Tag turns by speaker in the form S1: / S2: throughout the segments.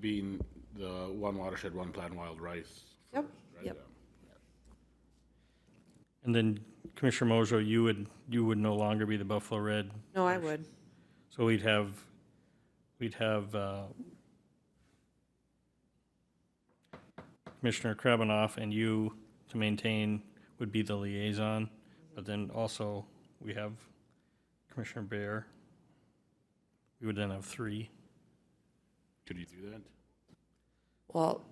S1: being the one watershed, one plan wild rice.
S2: Yep,
S1: right?
S2: yep.
S3: And then Commissioner Mojo, you would, you would no longer be the Buffalo Red.
S2: No, I would.
S3: So we'd have, we'd have uh, Commissioner Krabanoff and you to maintain would be the liaison. But then also, we have Commissioner Bear. We would then have three.
S1: Could you do that?
S2: Well,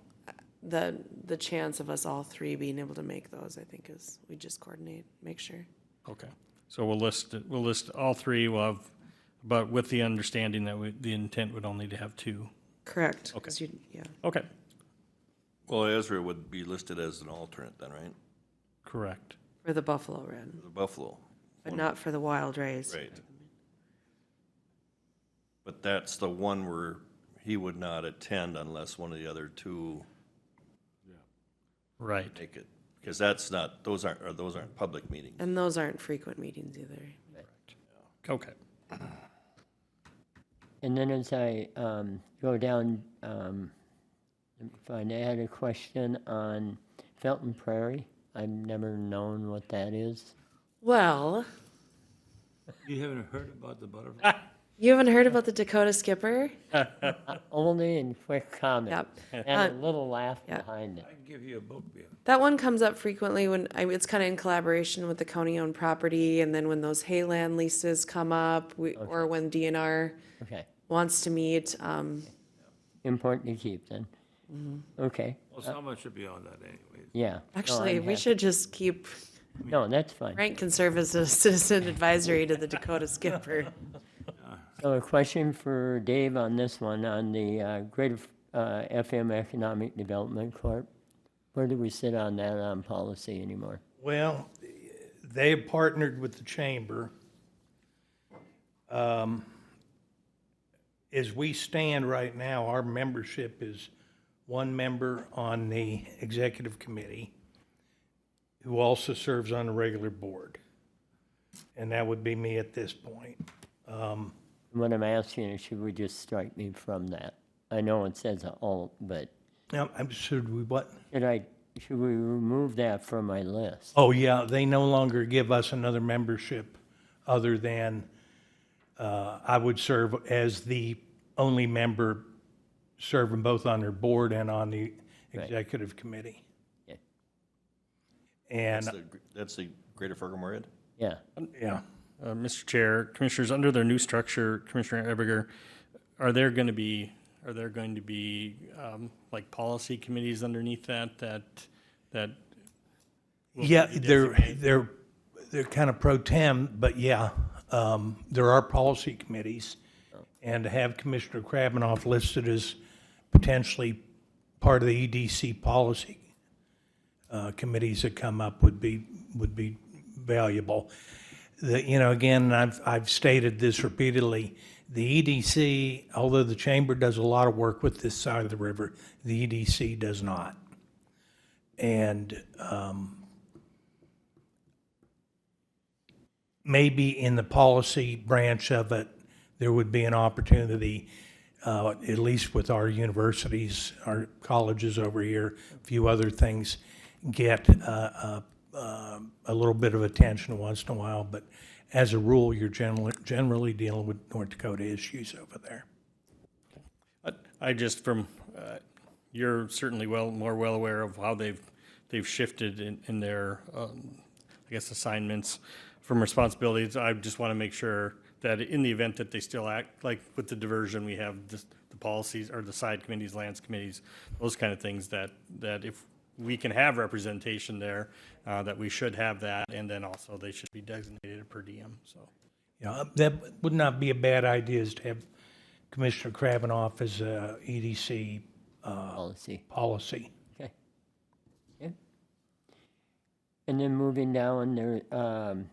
S2: the, the chance of us all three being able to make those, I think is, we just coordinate, make sure.
S3: Okay, so we'll list, we'll list all three, we'll have, but with the understanding that we, the intent would only to have two.
S2: Correct. 'cause you- Yeah,
S3: Okay,
S4: Well, Ezra would be listed as an alternate then, right?
S3: correct.
S2: for the Buffalo Red,
S4: The Buffalo.
S2: but not for the Wild Rays.
S4: Right. But that's the one where he would not attend unless one of the other two
S3: Right,
S4: make it. Because that's not, those aren't, or those aren't public meetings.
S2: And those aren't frequent meetings either.
S3: okay.
S5: And then as I um, go down, um, let me find, I had a question on Felton Prairie. I've never known what that is.
S2: Well,
S6: You haven't heard about the butterfly?
S2: you haven't heard about the Dakota Skipper?
S5: Only in quick comment.
S2: Yep. Uh,
S5: And a little laugh
S2: yeah.
S5: behind it.
S6: I can give you a book, Bill.
S2: That one comes up frequently when, I, it's kind of in collaboration with the county-owned property, and then when those hayland leases come up, we, or when DNR
S5: Okay,
S2: wants to meet, um,
S5: important to keep then.
S2: Mm-hmm.
S5: Okay,
S6: Well, someone should be on that anyways.
S5: yeah. No,
S2: actually,
S5: I'm
S2: we
S5: happy.
S2: should just keep
S5: No, that's fine.
S2: Frank can serve as a citizen advisory to the Dakota Skipper.
S5: So a question for Dave on this one, on the uh, Greater uh, FM Economic Development Corp. Where do we sit on that on policy anymore?
S7: Well, they have partnered with the chamber. Um, As we stand right now, our membership is one member on the executive committee who also serves on the regular board. And that would be me at this point.
S5: What I'm asking is, should we just strike me from that? I know it says alt, but
S7: Now, I'm- should we what?
S5: should I, should we remove that from my list?
S7: Oh, yeah, they no longer give us another membership other than uh, I would serve as the only member serving both on their board and on the executive committee.
S5: Yeah.
S7: And,
S4: That's the- That's the Greater Ferguson Red?
S5: Yeah,
S7: yeah,
S3: Uh, Mr. Chair, Commissioners, under their new structure, Commissioner Ebinger, are there going to be, are there going to be, um, like, policy committees underneath that, that, that,
S7: yeah, they're, they're, they're kind of pro tem, but yeah, um, there are policy committees. And to have Commissioner Krabnoff listed as potentially part of the EDC policy uh, committees that come up would be, would be valuable. The, you know, again, I've, I've stated this repeatedly, the EDC, although the chamber does a lot of work with this side of the river, the EDC does not. And um, maybe in the policy branch of it, there would be an opportunity, uh, at least with our universities, our colleges over here, a few other things, get uh, uh, um, a little bit of attention once in a while, but as a rule, you're generally, generally dealing with North Dakota issues over there.
S3: I- I just from, uh, you're certainly well, more well aware of how they've, they've shifted in, in their, um, I guess, assignments from responsibilities. I just want to make sure that in the event that they still act, like with the diversion, we have this- the policies or the side committees, lands committees, those kind of things that, that if we can have representation there, uh, that we should have that. And then also they should be designated per diem, so.
S7: You know, uh, that would not be a bad idea is to have Commissioner Kravinoff as a EDC
S5: policy,
S7: policy.
S5: okay. Yeah. And then moving down, there, um,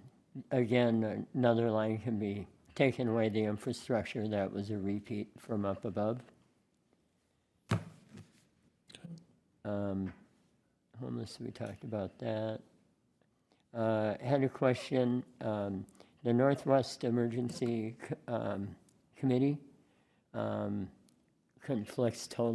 S5: again, another line can be taken away the infrastructure, that was a repeat from up above. Um, homeless, we talked about that. Uh, had a question, um, the Northwest Emergency, C- um, Committee, um, conflicts totally